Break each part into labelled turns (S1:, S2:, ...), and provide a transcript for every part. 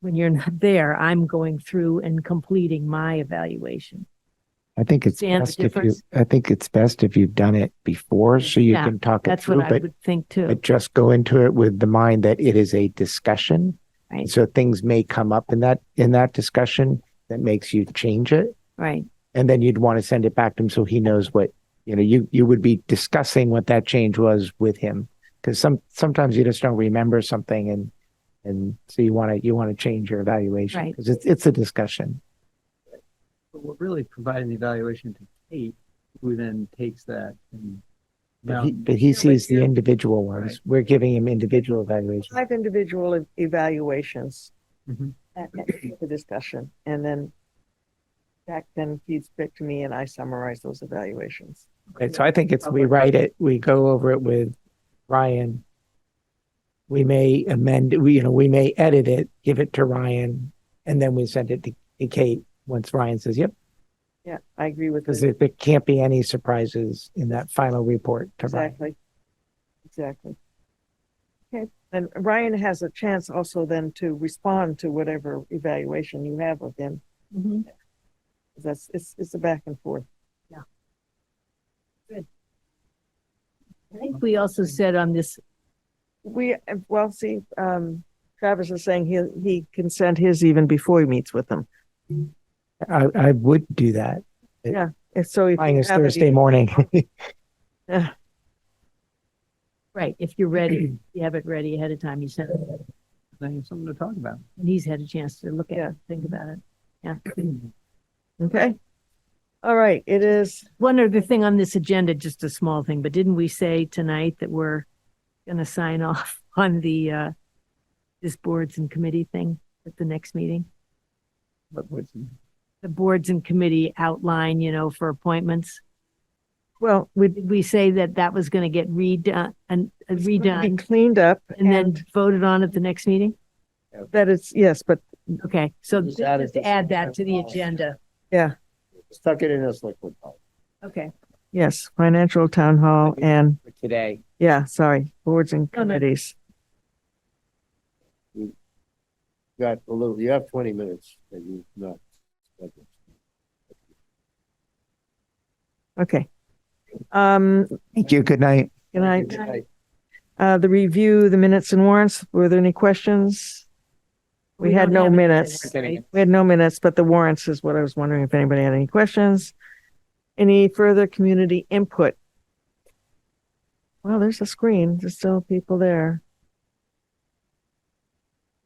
S1: when you're not there, I'm going through and completing my evaluation.
S2: I think it's
S1: Understand the
S2: best if you,
S1: difference?
S2: I think it's best if you've done it before, so you
S1: Yeah,
S2: can talk it
S1: That's what
S2: through,
S1: I
S2: but,
S1: would think too.
S2: but just go into it with the mind that it is a discussion.
S1: Right.
S2: So things may come up in that, in that discussion that makes you change it.
S1: Right,
S2: And then you'd want to send it back to him so he knows what, you know, you, you would be discussing what that change was with him. Cause some, sometimes you just don't remember something and, and so you want to, you want to change your evaluation.
S1: Right.
S2: Cause it's, it's a discussion.
S3: But we're really providing the evaluation to Kate, who then takes that and.
S2: But
S3: now-
S2: he, but he
S4: but
S2: sees the
S4: you-
S2: individual ones.
S3: Right.
S2: We're giving him individual evaluations.
S4: Five individual e- evaluations
S2: Mm-hmm.
S3: Mhm.
S4: at- at the discussion, and then Jack then feeds back to me and I summarize those evaluations.
S2: Okay, so I think it's, we
S3: Okay.
S2: write it, we go over it with Ryan. We may amend, we, you know, we may edit it, give it to Ryan, and then we send it to to Kate once Ryan says, yep,
S4: Yeah, I agree with
S2: because
S4: that.
S2: there there can't be any surprises in that final report to Ryan.
S4: Exactly. Exactly. Okay, and Ryan has a chance also then to respond to whatever evaluation you have of him.
S1: Mhm.
S4: That's, it's, it's a back and forth.
S1: I think we also said on this,
S4: We, well, see, um, Travis is saying he, he can send his even before he meets with them.
S2: I, I would do that.
S4: And so if.
S2: Ryan
S4: you
S2: is
S4: have it,
S2: Thursday morning.
S1: right, if you're ready, if you have it ready ahead of time, you send it,
S3: Then you have something to talk about.
S1: and he's had a chance to look at it,
S4: Yeah.
S1: and think about it.
S4: Okay. All right, it is,
S1: One other thing on this agenda, just a small thing, but didn't we say tonight that we're gonna sign off on the, uh, this boards and committee thing at the next meeting?
S3: But what's,
S1: The boards and committee outline, you know, for appointments.
S4: well, we
S1: Did we say that that was gonna get redone, and
S4: be
S1: redone
S4: cleaned up
S1: and then
S4: and
S1: voted on at the next meeting?
S4: that it's, yes, but
S1: Okay, so
S5: Just add it
S1: just
S5: to-
S1: add that to the agenda.
S5: Let's tuck it in as liquid bulk
S1: Okay.
S4: yes, financial town hall and,
S5: for today.
S4: yeah, sorry, boards and
S1: No, no.
S4: committees.
S5: You Got a little, you have twenty minutes that you've not. spent.
S4: Okay. Um,
S2: Thank you. Good night.
S4: good night.
S1: Good night.
S4: Uh, the review, the minutes and warrants, were there any questions? We had
S1: don't
S4: no
S1: have any
S4: minutes.
S1: minutes,
S4: We had no minutes, but the warrants is what I was wondering if anybody had any questions. Any further community input? Well, there's a screen. There's still people there.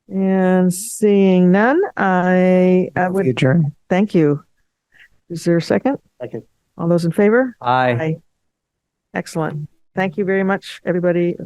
S4: And seeing none, I, I would,
S2: Adjourn.
S4: thank you. Is there a second?
S5: Second.
S4: All those in favor?
S3: I.
S4: Excellent. Thank you very much, everybody.